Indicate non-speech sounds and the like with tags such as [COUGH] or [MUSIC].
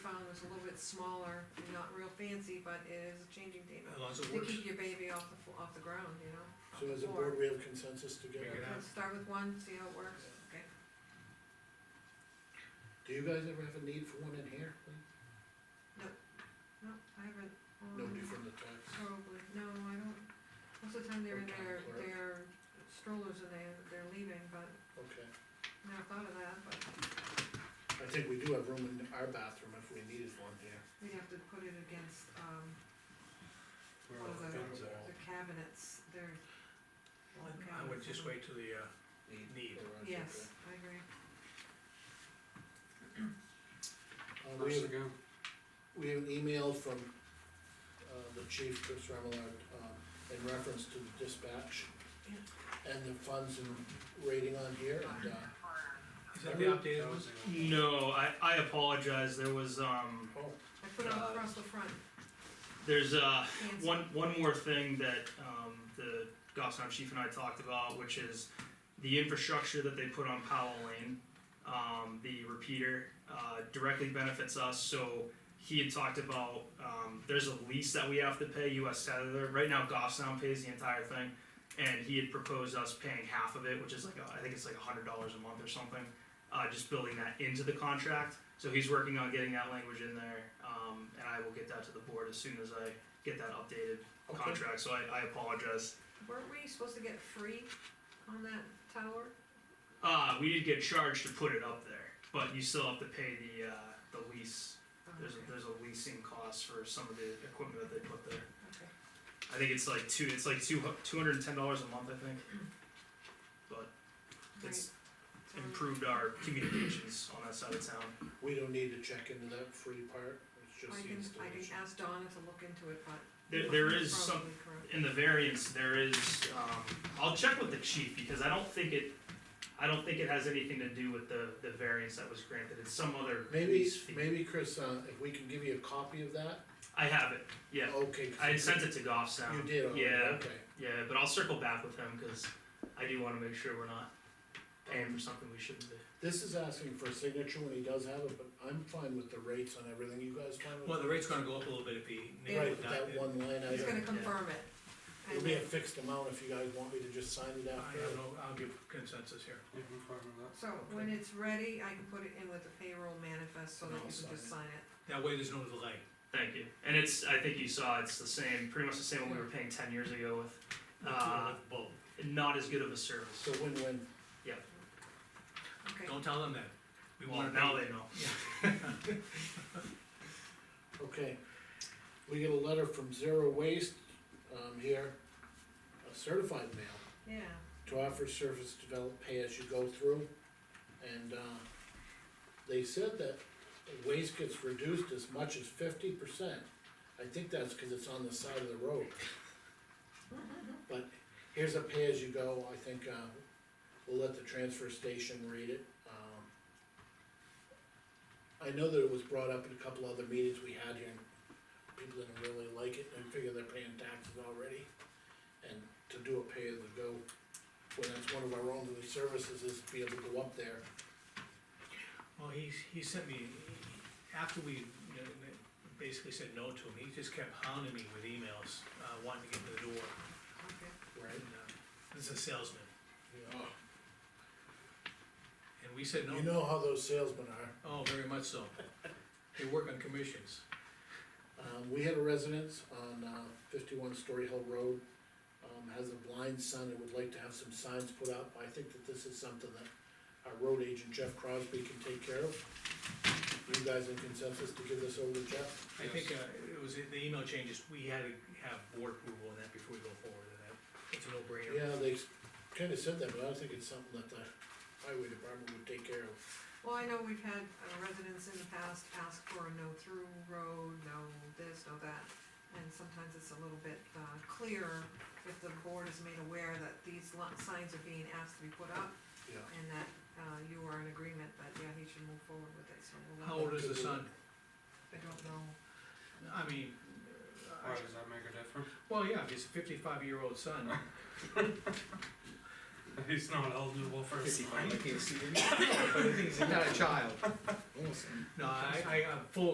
it's smaller, and not real fancy, but it is a changing table. As long as it To works, keep your baby off the, fo- off the ground, you know? off So the as a floor. board, we have consensus to get Figure it it. out. Let's start with one, see how it works, okay? Do you guys ever have a need for one in here? Lee? No, I haven't, um, Nobody from the tax? probably, no, I don't, most of the time they're in Or town their, clerk. their strollers and they, they're leaving, but Okay, never thought of that, but I think we do have room in our bathroom if we needed one here. we'd have to put it against, um, where Oh, one of all the the, guns are. the cabinets, they're. I would just wait till the, uh, need. Garage, Yes, I agree. okay. Uh, we First have, to go, we have an email from, uh, the chief, Chris Remillard, um, in reference to the dispatch. And the funds and rating on here, and, uh, Is that the updated one? No, I, I apologize. There was um, oh, I put it Uh, across the front, there's uh, Nancy. one one more thing that um, the Goffstown chief and I talked about, which is the infrastructure that they put on Powell Lane. Um, the repeater uh, directly benefits us. So he had talked about um, there's a lease that we have to pay U.S. Cellular. Right now, Goffstown pays the entire thing, and he had proposed us paying half of it, which is like a, I think it's like hundred dollars a month or something. Uh, just building that into the contract. So he's working on getting that language in there, um, and I will get that to the board as soon as I get that updated okay. contract. So I, I apologize. weren't we supposed to get free on that tower? Uh, we did get charged to put it up there, but you still have to pay the uh, the lease. Oh, There's okay, a, there's a leasing cost for some of the equipment that they put there. okay. I think it's like two it's like two two hundred and ten dollars a month. I think it's Right, so- improved our communications on that side of town. We don't need to check into that free part, it's I just the can, I can installation. ask Donna to look into it, but. There, there you're is some probably correct. in the variance, there is, um, I'll check with the chief, because I don't think it, I don't think it has anything to do with the, the variance that was granted, it's some other Maybe, lease fee. maybe Chris, uh, if we can give you a copy of that? I have it, yeah, Okay. 'cause I you- had sent it to You Goffstown, did, already, Yeah. okay. yeah, but I'll circle back with him, cause I do wanna make sure we're not paying for something we shouldn't be. This is asking for a signature when he does have it, but I'm fine with the rates on everything, you guys fine with? Well, the rate's gonna go up a little bit if he. Yeah. Right, with that one line He's gonna item, confirm it. it'll And be a then- fixed amount if you guys want me to just sign it I after. don't know, I'll give consensus here. yeah, I'm fine with that. So when it's ready, I can put it in with the payroll manifest so And that I'll you can just sign it. That way there's no delay. Thank you, and it's, I think you saw, it's the same, pretty much the same one we were paying ten years ago with, Ah. uh, Boom. not as good of a service. So win-win, Okay, Don't tell them that. We Well, want now they know. okay. We get a letter from Zero Waste, um, here, a certified yeah. mail. to offer service develop pay as you go through. And, uh, they said that waste gets reduced as much as fifty percent. I think that's cause it's on the side of the road. But here's a pay as you go, I think, uh, we'll let the transfer station read it, um. I know that it was brought up in a couple other meetings we had here, and people didn't really like it, and figure they're paying taxes already. And to do a pay as you go when that's one of our only services is to be able to go up there. Well, he, he sent me, after we you know, basically said no to him, he just kept hounding me with emails, uh, wanting to get to the door. Okay. Right. And, uh, This is a salesman, Oh, and we said You no, know how those salesmen are. oh, very much so. They work on commissions. Um, we had a residence on, uh, fifty-one Story Hill Road, um, has a blind son and would like to have some signs put up. I think that this is something that our road agent Jeff Crosby can take care of. You guys in consensus to give this over to Jeff? I think, uh, it was, the email changes, we had to have board approval on that before we go forward, and that, it's a no-brainer. Yeah, they kinda said that, but I think it's something that the highway department would take care of. Well, I know we've had uh, residents in the past ask for a no-through road, no this, no that, and sometimes it's a little bit uh, clearer if the board is made aware that these lo- signs are being asked to be put up Yeah. and that uh, you are in agreement, but yeah, he should move forward with it, so we'll. let How old is the son? I don't know, I mean, uh, Why does that make a difference? [LAUGHS] well, yeah, if it's a fifty-five-year-old son, He's not eligible for a sign. [LAUGHS] but the thing is, he's not a child. No, I, I, I'm full